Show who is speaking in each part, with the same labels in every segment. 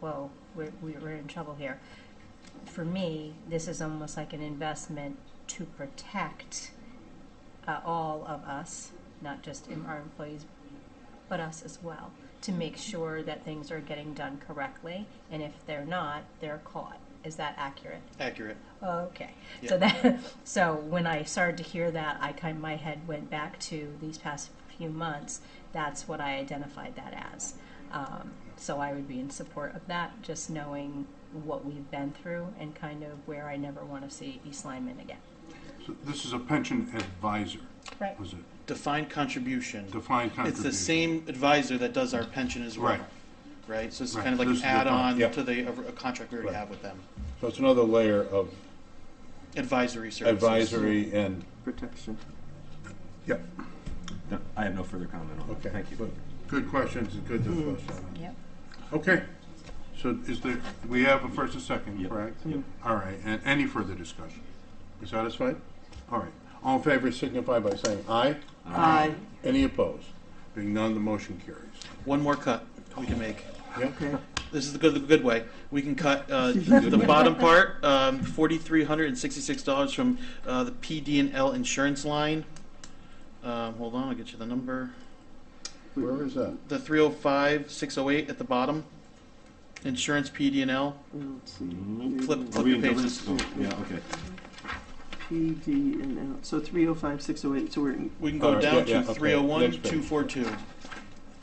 Speaker 1: trouble. We're, we're in trouble here. For me, this is almost like an investment to protect uh, all of us, not just in our employees, but us as well, to make sure that things are getting done correctly. And if they're not, they're caught. Is that accurate?
Speaker 2: Accurate.
Speaker 1: Okay,
Speaker 2: Yeah.
Speaker 1: so that, so when I started to hear that, I kind, my head went back to these past few months. That's what I identified that as. Um, so I would be in support of that, just knowing what we've been through and kind of where I never want to see East Lyman again.
Speaker 3: So This is a pension advisor,
Speaker 1: Right.
Speaker 3: was it?
Speaker 2: Defined contribution.
Speaker 3: Defined contribution.
Speaker 2: It's the same advisor that does our pension as well.
Speaker 3: Right.
Speaker 2: Right, so it's
Speaker 3: Right,
Speaker 2: kind of like
Speaker 3: this
Speaker 2: an
Speaker 3: is defined,
Speaker 2: add-on
Speaker 4: yeah.
Speaker 2: to the, a contract we already
Speaker 4: Right.
Speaker 2: have with them.
Speaker 4: So it's another layer of
Speaker 2: Advisory services.
Speaker 4: advisory and,
Speaker 5: protection.
Speaker 4: yep.
Speaker 6: No, I have no further comment on
Speaker 4: Okay.
Speaker 6: that. Thank you.
Speaker 4: good.
Speaker 3: Good questions, good discussion.
Speaker 1: Yep.
Speaker 3: Okay, so is there, we have a first and second,
Speaker 6: Yep.
Speaker 3: correct? All right, and any further discussion? You satisfied? All right, all in favor signify by saying aye.
Speaker 5: Aye.
Speaker 3: Any opposed? Being none, the motion carries.
Speaker 2: One more cut we can make.
Speaker 5: Okay.
Speaker 2: This is the good, the good way. We can cut uh, the bottom part, um, forty-three hundred and sixty-six dollars from uh, the PD and L insurance line. Um, hold on, I'll get you the number.
Speaker 3: Where is that?
Speaker 2: The three hundred five six hundred eight at the bottom. Insurance PD and L.
Speaker 5: I don't see.
Speaker 2: Flip,
Speaker 6: Are
Speaker 2: flip
Speaker 6: we
Speaker 2: your
Speaker 6: in
Speaker 2: pages.
Speaker 6: Dublin? Oh, yeah, okay.
Speaker 5: P, D, and L. So three oh five, six oh eight. So we're in
Speaker 2: We can
Speaker 4: All
Speaker 2: go
Speaker 4: right,
Speaker 2: down
Speaker 4: yeah,
Speaker 2: to
Speaker 4: yeah, okay.
Speaker 2: 301,
Speaker 4: Next page.
Speaker 2: 242.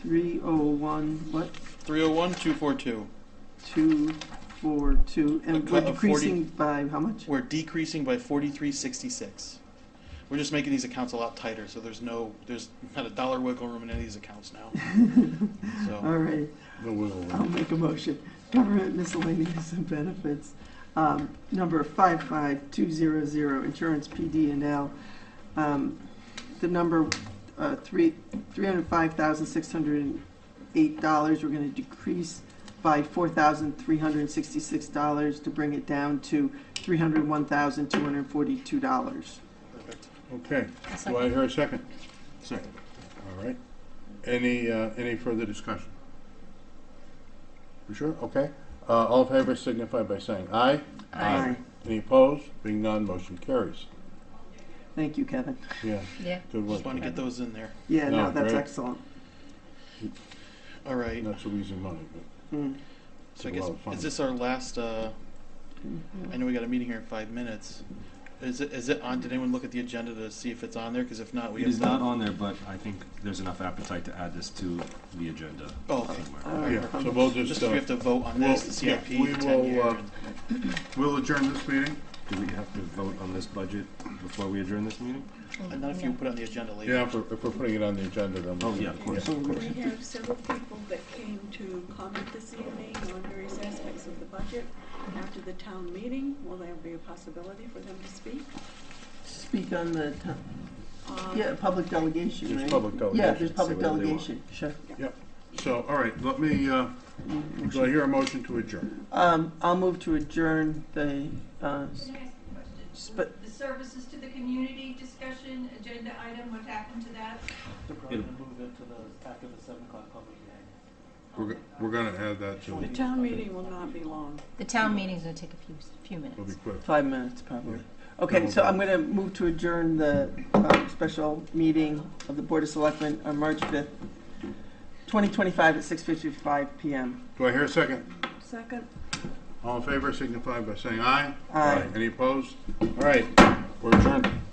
Speaker 5: three oh one, what?
Speaker 2: 301, 242.
Speaker 5: Two, four, two. And
Speaker 2: A
Speaker 5: we're
Speaker 2: cut of
Speaker 5: decreasing by how much?
Speaker 2: We're decreasing by 4366. We're just making these accounts a lot tighter, so there's no, there's not a dollar wiggle room in any of these accounts now.
Speaker 5: All
Speaker 2: So,
Speaker 5: right.
Speaker 3: The wiggle room.
Speaker 5: I'll make a motion. Government miscellaneous and benefits, um, number 55200, insurance PD and L. Um, The number uh, three $305,608, we're going to decrease by $4,366 to bring it down to $301,242.
Speaker 2: perfect.
Speaker 3: Okay,
Speaker 1: second.
Speaker 3: do I hear a second? Second. All right, any, uh, any further discussion? You sure? Okay, uh, all in favor signify by saying aye.
Speaker 5: Aye.
Speaker 3: Any opposed? Being none, motion carries.
Speaker 5: Thank you, Kevin.
Speaker 3: Yeah,
Speaker 1: Yeah.
Speaker 3: good
Speaker 2: Just
Speaker 3: work.
Speaker 2: want to get those in there.
Speaker 5: Yeah, no,
Speaker 3: No,
Speaker 5: that's
Speaker 3: great.
Speaker 5: excellent.
Speaker 2: All right.
Speaker 3: Not so easy money,
Speaker 5: Mm.
Speaker 2: So I
Speaker 3: It's a
Speaker 2: guess,
Speaker 3: lot of fun.
Speaker 2: is this our last, uh, I know we got a meeting here in five minutes. Is it, is it on, did anyone look at the agenda to see if it's on there? Because if not, we
Speaker 6: It
Speaker 2: have.
Speaker 6: is not on there, but I think there's enough appetite to add this to the agenda.
Speaker 2: Oh, okay.
Speaker 5: All
Speaker 3: but,
Speaker 5: right.
Speaker 3: yeah, so we'll
Speaker 2: Just
Speaker 3: just,
Speaker 2: we
Speaker 3: uh,
Speaker 2: have to vote on
Speaker 3: well,
Speaker 2: this, the
Speaker 3: yeah,
Speaker 2: CIP,
Speaker 3: we
Speaker 2: the ten
Speaker 3: will,
Speaker 2: year.
Speaker 3: uh,
Speaker 2: and-
Speaker 3: we'll adjourn this meeting?
Speaker 6: Do we have to vote on this budget before we adjourn this meeting?
Speaker 2: And not if you put it on the agenda later.
Speaker 3: Yeah, if we're, if we're putting it on the agenda, then.
Speaker 6: Oh, yeah, of course, of course.
Speaker 7: We have several people that came to comment this evening on various aspects of the budget. After the town meeting, will there be a possibility for them to speak?
Speaker 5: Speak on the, to-
Speaker 7: Uh,
Speaker 5: yeah, public delegation, right?
Speaker 3: There's public
Speaker 5: Yeah,
Speaker 3: delegation.
Speaker 5: there's public
Speaker 6: Say whatever they want.
Speaker 5: delegation, sure.
Speaker 3: Yep, so, all right, let me, uh, do I hear a motion to adjourn?
Speaker 5: Um, I'll move to adjourn the, uh, s-
Speaker 8: Can I ask
Speaker 5: sp-
Speaker 8: The services to the community discussion, agenda item, what happened to that?
Speaker 9: They're probably gonna move it to the, after the seven o'clock public hearing.
Speaker 3: We're, go- we're gonna add that to,
Speaker 7: The
Speaker 3: it'll
Speaker 7: town meeting will not be long.
Speaker 1: The town meeting's gonna take a few, few
Speaker 3: be
Speaker 1: minutes.
Speaker 3: quick.
Speaker 5: five minutes probably. Okay,
Speaker 3: Double
Speaker 5: so
Speaker 3: down.
Speaker 5: I'm gonna move to adjourn the, um, special meeting of the Board of Selectmen on March fifth, twenty twenty-five at six fifty-five PM.
Speaker 3: Do I hear a second?
Speaker 7: Second?
Speaker 3: All in favor signify by saying aye.
Speaker 5: Aye.
Speaker 3: Any opposed? All right, we're adjourned.